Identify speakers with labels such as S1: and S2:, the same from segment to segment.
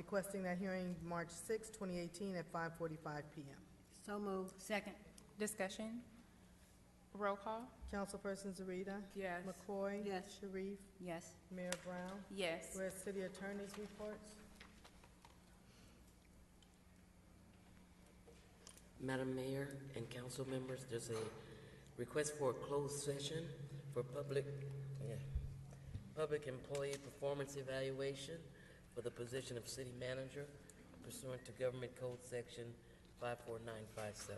S1: requesting that hearing March 6, 2018, at 5:45 PM.
S2: So moved. Second.
S3: Discussion? Roll call?
S1: Councilperson Zarita.
S3: Yes.
S1: McCoy.
S2: Yes.
S1: Sharif.
S2: Yes.
S1: Mayor Brown.
S3: Yes.
S1: Whereas city attorney's reports.
S4: Madam Mayor and council members, there's a request for a closed session for public, yeah, public employee performance evaluation for the position of city manager pursuant to Government Code Section 54957.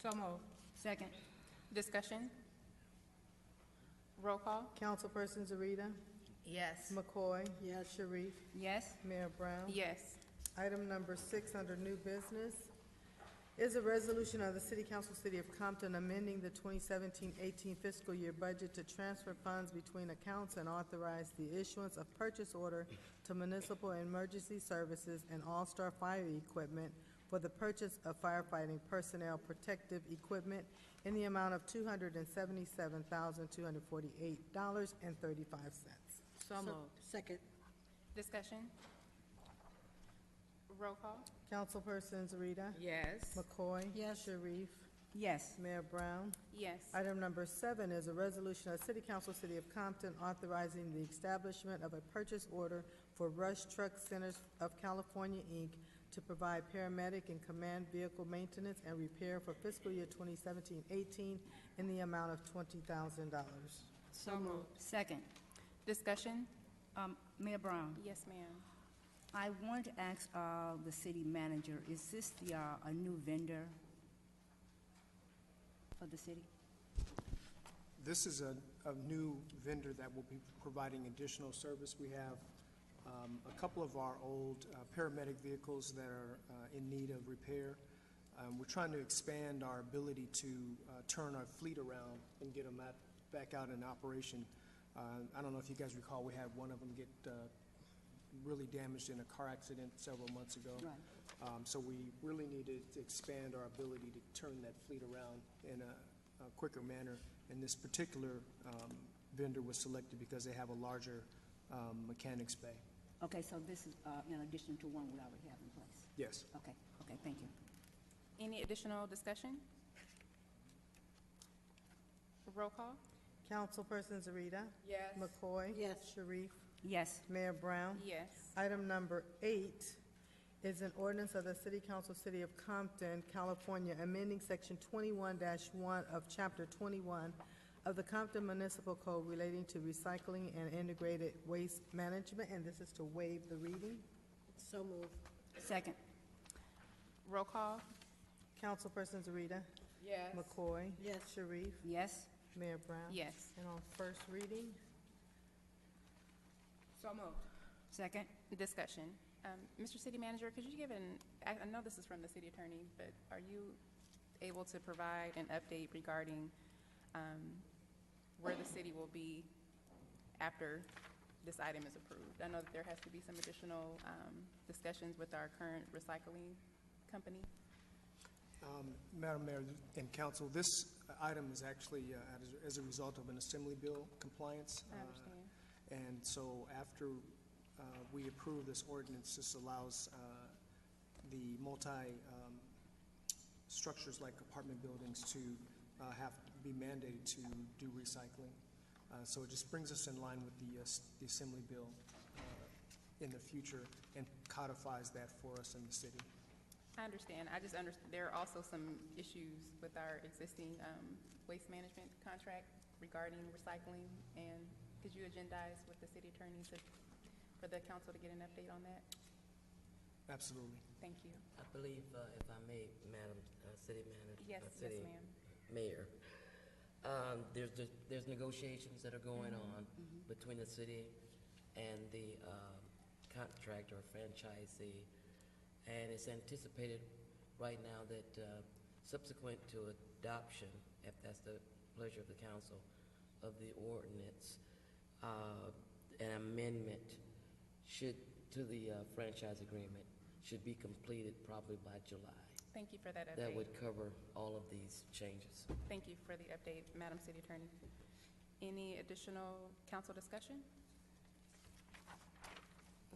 S3: So moved.
S2: Second.
S3: Discussion? Roll call?
S1: Councilperson Zarita.
S2: Yes.
S1: McCoy.
S2: Yes.
S1: Sharif.
S2: Yes.
S1: Mayor Brown.
S3: Yes.
S1: Item number six under new business is a resolution of the City Council, City of Compton, amending the 2017-18 fiscal year budget to transfer funds between accounts and authorize the issuance of purchase order to municipal emergency services and All-Star Fire Equipment for the purchase of firefighting personnel protective equipment in the amount of $277,248.35.
S2: So moved. Second.
S3: Discussion? Roll call?
S1: Councilperson Zarita.
S3: Yes.
S1: McCoy.
S2: Yes.
S1: Sharif.
S2: Yes.
S1: Mayor Brown.
S3: Yes.
S1: Item number seven is a resolution of City Council, City of Compton, authorizing the establishment of a purchase order for Rush Truck Centers of California, Inc., to provide paramedic and command vehicle maintenance and repair for fiscal year 2017-18 in the amount of $20,000.
S2: So moved. Second.
S3: Discussion?
S5: Um, Mayor Brown,
S3: Yes, ma'am.
S5: I wanted to ask, uh, the city manager, is this the, uh, a new vendor for the city?
S6: This is a, a new vendor that will be providing additional service. We have um, a couple of our old uh, paramedic vehicles that are uh, in need of repair. Um, We're trying to expand our ability to uh, turn our fleet around and get them out, back out in operation. Uh, I don't know if you guys recall, we had one of them get uh, really damaged in a car accident several months ago.
S5: Right.
S6: Um, So we really need to to expand our ability to turn that fleet around in a a quicker manner. And this particular um, vendor was selected because they have a larger um, mechanics bay.
S5: Okay, so this is, uh, in addition to one we already have in place?
S6: Yes.
S5: Okay, okay, thank you.
S3: Any additional discussion? Roll call?
S1: Councilperson Zarita.
S3: Yes.
S1: McCoy.
S2: Yes.
S1: Sharif.
S5: Yes,
S1: Mayor Brown.
S3: Yes.
S1: Item number eight is an ordinance of the City Council, City of Compton, California, amending Section twenty-one one of Chapter twenty-one of the Compton Municipal Code relating to recycling and integrated waste management, and this is to waive the reading.
S2: So moved.
S5: second,
S3: Roll call?
S1: Councilperson Zarita.
S3: Yes.
S1: McCoy.
S2: Yes.
S1: Sharif.
S5: yes,
S1: Mayor Brown.
S3: Yes.
S1: And on first reading,
S3: So moved.
S5: second,
S3: Discussion. Um, Mr. City Manager, could you give an, I I know this is from the city attorney, but are you able to provide an update regarding um, where the city will be after this item is approved? I know that there has to be some additional um, discussions with our current recycling company.
S6: Um, Madam Mayor and Council, this item is actually uh, as- as a result of an Assembly Bill compliance.
S3: I
S6: uh,
S3: understand.
S6: And so after uh, we approve this ordinance, this allows uh, the multi um, structures like apartment buildings to uh, have, be mandated to do recycling. Uh, So it just brings us in line with the, uh, s- the Assembly Bill uh, in the future and codifies that for us in the city.
S3: I understand. I just understand, there are also some issues with our existing um, waste management contract regarding recycling, and could you agendize with the city attorney to, for the council to get an update on that?
S6: Absolutely.
S3: Thank you.
S4: I believe, uh, if I may, Madam uh, City Manager.
S3: Yes,
S4: uh,
S3: yes,
S4: City
S3: ma'am.
S4: Mayor, um, there's, the- there's negotiations that are going on between the city and the um, contractor or franchisee. And it's anticipated right now that uh, subsequent to adoption, if that's the pleasure of the council, of the ordinance, uh, an amendment should, to the uh, franchise agreement, should be completed probably by July.
S3: Thank you for that
S4: That
S3: update.
S4: would cover all of these changes.
S3: Thank you for the update, Madam City Attorney. Any additional council discussion?